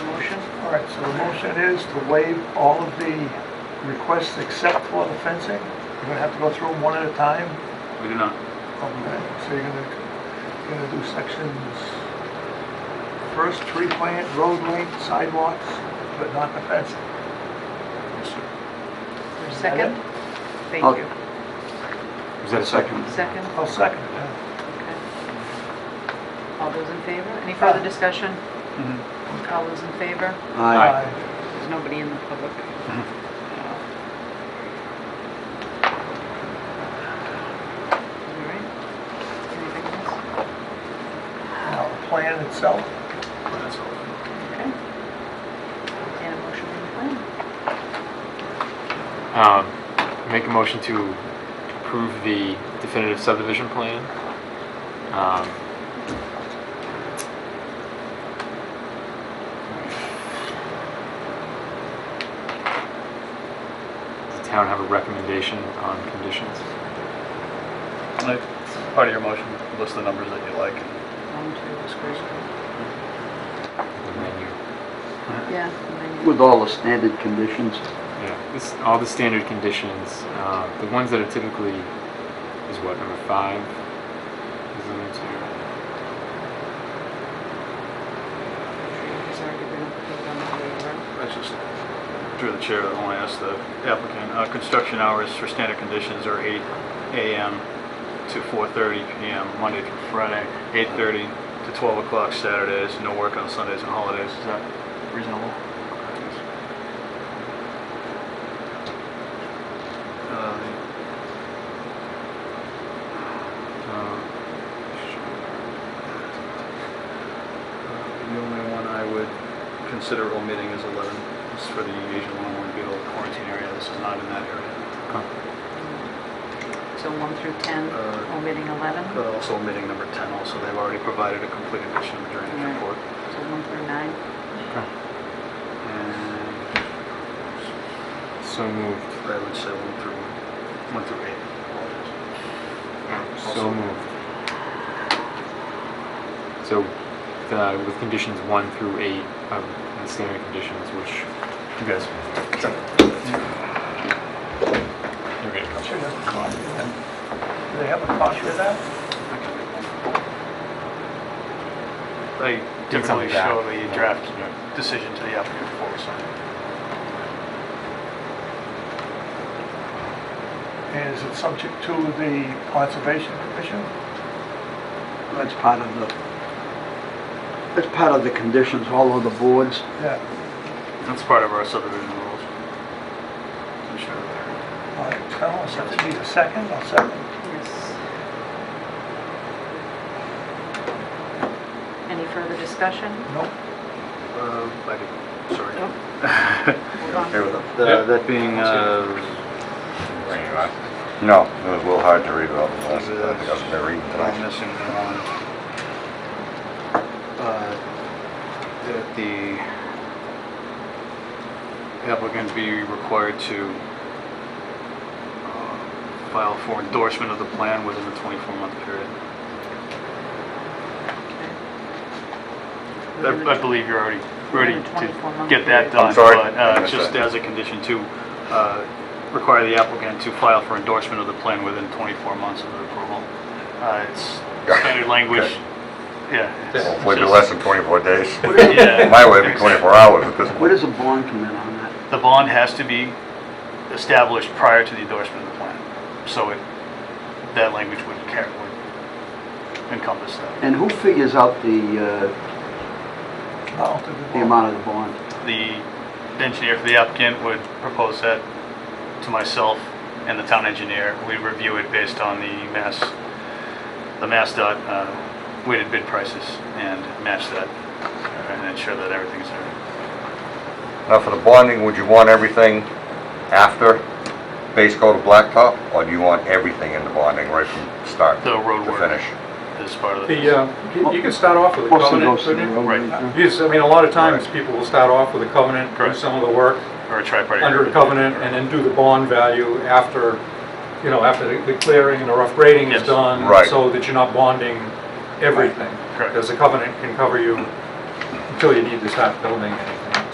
All right, so the motion is to waive all of the requests except for the fencing? You're gonna have to go through them one at a time? We do not. Okay, so you're gonna, you're gonna do sections, first tree plant, road length, sidewalks, but not the fencing? Your Second? Thank Okay. you. Is that a second? Second, I'll second it, yeah. okay. All those in favor? Any further discussion? Mhm. All those in favor? Aye. There's nobody in the public. All right. Anything else? Now, the plan itself, Okay. And a motion on the plan? Um, Make a motion to approve the definitive subdivision plan. Um, Does the town have a recommendation on conditions? Part of your motion, list the numbers that you like. One, two, three. And then you- Yeah. and then you- With all the standard conditions, Yeah, this, all the standard conditions, uh, the ones that are typically, is what, number five? Is the next year? It's already been approved on the waiver. I just, through the chair, I want to ask the applicant, uh, construction hours for standard conditions are 8 AM to 4:30 PM, Monday through Friday, 8:30 to 12 o'clock Saturdays, no work on Sundays and holidays. Is that reasonable? Uh, Uh, The only one I would consider omitting is 11, It's for the Asian oh Longwood Beetle quarantine area, this is not in that area. So 1 through 10, Uh, omitting 11? But also omitting number 10 also, they've already provided a complete edition of the drainage Right. report. So 1 through 9? And So moved. I would say 1 through, 1 through 8. apologies. So moved. So, the, with conditions one through eight of the standard conditions, which you guys. You're gonna should have a copy of that. Do they have a copy of that? They Did typically something bad. show the Yeah. draft Yeah. decision to the applicant before we sign it. And is it subject to the conservation commission? that's part of the, that's part of the conditions, all of the boards. Yeah, That's part of our subdivision rules. I'm sure they're- all right, tell us, if you need a second, I'll second. Yes. Any further discussion? Nope. Uh, I did, sorry. Nope. Hold on. Here we go. Uh, That being, uh, No, it was a little hard to read all the last, Yeah, I think I was gonna read that I'm tonight. missing on, uh, that the applicant be required to uh, file for endorsement of the plan within the 24-month period. Within the- I I believe you're already ready Within the 24 to month get that period. done. I'm sorry. But uh, I missed just that. as a condition to uh, require the applicant to file for endorsement of the plan within 24 months of the approval. Uh, It's Yeah. standard language. Okay. Yeah. it's- Hopefully it'll it's be less than 24 days. just- yeah. My way would be 24 hours at this Where point. does the bond come in on that? The bond has to be established prior to the endorsement of the plan. So it, that language would care, would encompass that. And who figures out the, uh, Now to the- the amount of the bond? The engineer for the applicant would propose that to myself and the town engineer. We review it based on the mass, the mass dot uh, weighted bid prices and match that uh, and ensure that everything's uh, there. Now, for the bonding, would you want everything after base coat of blacktop? Or do you want everything in the bonding right from start The to road work. finish? This is part of the. The, uh, you- you can start off with a Mostly covenant, goes to the couldn't you? road. Right. You just- I mean, a lot of times, people will start off with a covenant, do Correct. some of the work Or a tripartite. under a covenant, and then do the bond value after, you know, after the- the clearing and the rough grading is Yes. done. Right. So that you're not bonding everything. Correct. Because a covenant can cover you until you need to start building